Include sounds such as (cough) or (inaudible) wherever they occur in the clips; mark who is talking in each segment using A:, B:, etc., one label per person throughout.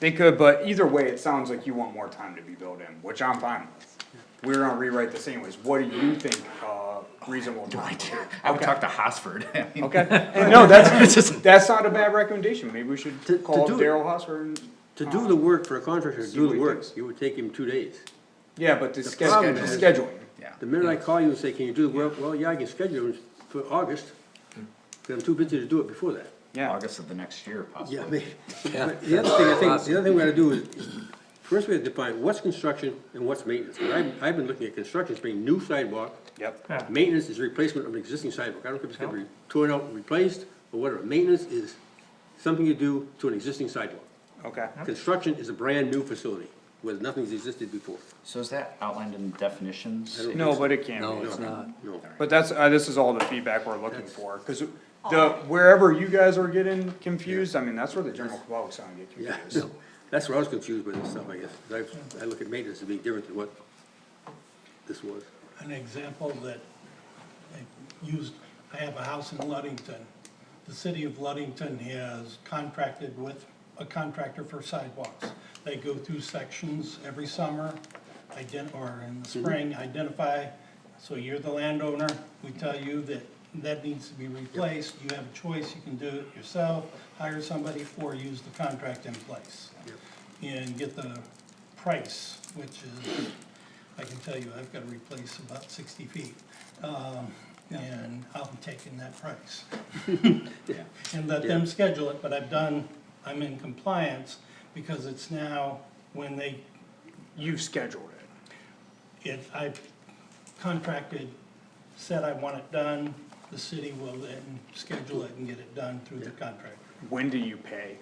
A: They could, but either way, it sounds like you want more time to be built in, which I'm fine with. We're gonna rewrite this anyways, what do you think, uh, reasonable time? is?
B: I would talk to Hosford. (laughs) I mean,
A: Okay, and no, that's,
B: just-
A: that's not a bad recommendation, maybe we should
C: To- to
A: call up
C: do it.
A: Daryl Husser and,
C: To do the work for a contractor, to
A: See what
C: do
A: he
C: the work,
A: thinks.
C: Um, it would take him two days.
A: yeah, but the schedule,
C: problem
A: the
C: is-
A: scheduling.
B: Yeah.
C: The minute I call you and say, can you do the work, well, yeah, Mm. I can schedule it for August, but I'm too busy to do it before that.
A: Yeah,
B: August of the next year possibly.
C: Yeah, I mean, (laughs) but the other thing, I think, the other thing we gotta do is, first we have to define what's construction and what's maintenance. And I've, I've been looking at construction as being new sidewalk.
A: yep,
C: Maintenance is replacement of an existing sidewalk. I don't care if it's gonna be torn out and replaced or whatever. Maintenance is something you do to an existing sidewalk.
A: okay,
C: Construction is a brand-new facility where nothing's existed before.
B: So is that outlined in definitions?
C: I don't-
A: no, but it can be.
D: No, it's not.
C: No.
A: But that's, uh, this is all the feedback we're looking for, cause the, wherever you guys are getting confused, I mean, that's where the general public's gonna get
C: Yeah, (laughs)
A: confused.
C: that's where I was confused with this stuff, I guess, 'cause I, I look at maintenance as being different than what this was.
E: an example that I used, I have a house in Luddington. The city of Luddington has contracted with a contractor for sidewalks. They go through sections every summer, ident, or in the spring, identify, so you're the landowner, we tell you that that needs to be replaced, you have a choice, you can do it yourself, hire somebody, or use the contract in place. And get the price, which is I can tell you, I've gotta replace about sixty feet, um, and I'm taking that price. And let them schedule it, but I've done, I'm in compliance, because it's now, when they,
A: You've scheduled it,
E: if I contracted, said I want it done, the city will then schedule it and get it done through the contractor.
A: when do you pay?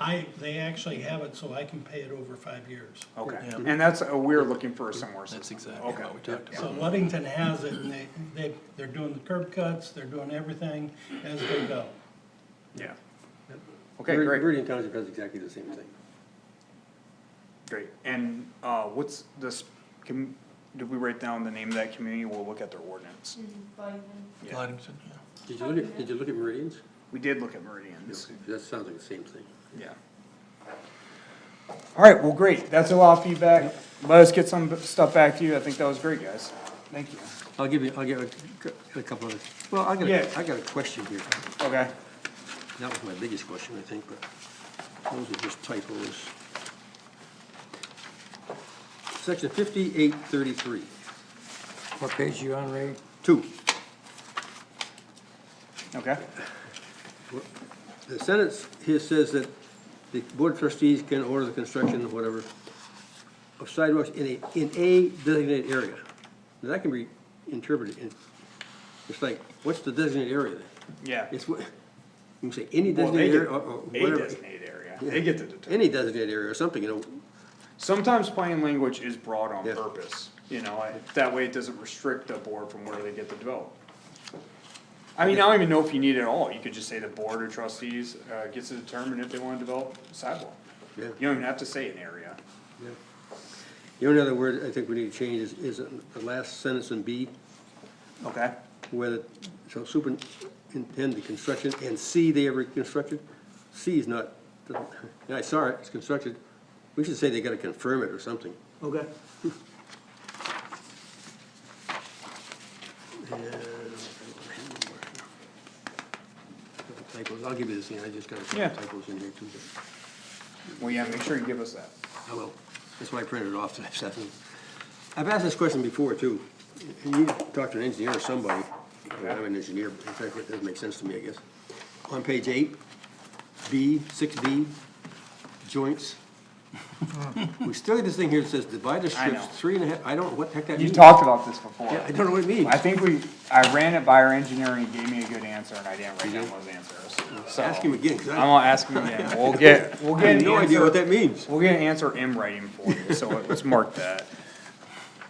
E: I, they actually have it, so I can pay it over five years.
A: Okay, and that's, uh, we're looking for a similar system.
D: That's exactly
A: Okay.
D: what we talked about.
E: So Luddington has it, and they, they, they're doing the curb cuts, they're doing everything as they go.
A: Yeah. Okay,
C: Ver-
A: great,
C: Meridian Township does exactly the same thing.
A: great, and, uh, what's this, can, did we write down the name of that community, we'll look at their ordinance? Yeah.
D: Livingston, yeah.
C: Did you look at, did you look at Meridians?
A: We did look at meridians,
C: That sounds like the same thing.
A: yeah. Alright, well, great, that's a lot of feedback, let us get some stuff back to you, I think that was great, guys, thank you.
C: I'll give you, I'll give a, a couple of, well, I got,
A: Yeah.
C: a- I got a question here.
A: Okay,
C: That was my biggest question, I think, but those are just typos. Section fifty-eight thirty-three,
D: What page you on, Ray?
C: two.
A: okay,
C: The sentence here says that the board of trustees can order the construction, whatever, of sidewalks in a, in a designated area. Now, that can be interpreted in, it's like, what's the designated area then?
A: yeah.
C: It's what, you can say any
A: Well, they
C: designated
A: get-
C: area or, or
A: A
C: whatever.
A: designated area, they get to determine.
C: Any designated area or something, you know,
A: Sometimes plain language is broad on
C: Yes.
A: purpose, you know, I- that way it doesn't restrict the board from where they get to develop. I mean, I don't even know if you need it at all, you could just say the board or trustees, uh, gets to determine if they wanna develop sidewalk.
C: Yeah.
A: You don't even have to say an area,
C: Yeah. The only other word I think we need to change is, is the last sentence in B,
A: okay?
C: where the, so superintend the construction and see they ever constructed. C is not, yeah, I saw it, it's constructed. We should say they gotta confirm it or something.
A: Okay.
C: Typos, I'll give you this, thing. I just got a
A: Yeah.
C: couple typos in here too.
A: Well, yeah, make sure you give us that.
C: I will. That's why I printed it off today, (laughs) Stephanie. I've asked this question before, too. And you talked to an engineer or somebody, I mean, I'm an engineer, but in fact, it doesn't make sense to me, I guess. On page eight, B, six B, joints. We still have this thing here that says divide the
A: know.
C: strips three and a half, I don't know what the heck that
A: You
C: means.
A: talked about this before.
C: Yeah, I don't know what it means.
A: I think we, I ran it by our engineer, and he gave me a good answer, and I didn't write down those answers, so.
C: Ask him again, 'cause I-
A: I'm gonna ask him again,
C: (laughs)
A: we'll get, we'll
C: I
A: get an answer.
C: have no idea what that means.
A: We'll get an answer in writing for you, so let's mark that.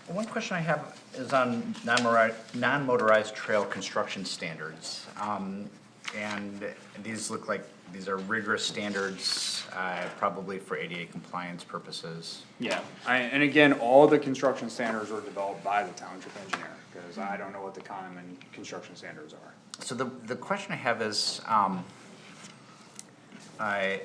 B: One question I have is on non-motorized, non-motorized trail construction standards. Um, and these look like, these are rigorous standards, uh, probably for ADA compliance purposes.
A: Yeah, I, and again, all the construction standards were developed by the township engineer, cause I don't know what the common construction standards are.
B: So the, the question I have is, um, I,